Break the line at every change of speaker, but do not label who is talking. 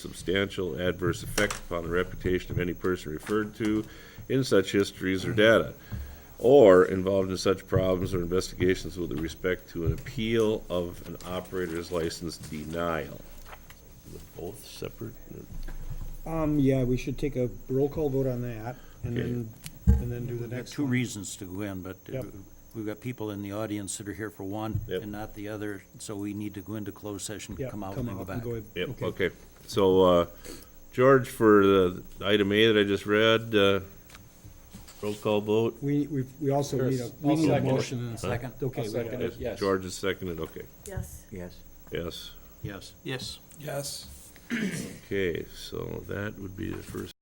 substantial adverse effect upon the reputation of any person referred to in such histories or data, or involved in such problems or investigations with respect to an appeal of an operator's license denial. Both separate?
Um, yeah, we should take a roll call vote on that and
Okay.
then, and then do the
We've got
next
two
one.
reasons to go in, but uh,
Yep.
we've got people in the audience that are here for one
Yep.
and not the other, so we need to go into closed session,
Yeah,
come out and then go back.
in.
Yep, okay. So, uh, George, for the item A that I just read, uh, roll call vote?
We, we, we also need a,
There's-
we
I'll
need a
second it.
motion and a second.
Second?
Okay,
I'll
we
second
got it.
it. Yes.
George is seconded, okay.
Yes.
Yes.
Yes.
Yes.
Yes.
Okay, so that would be the first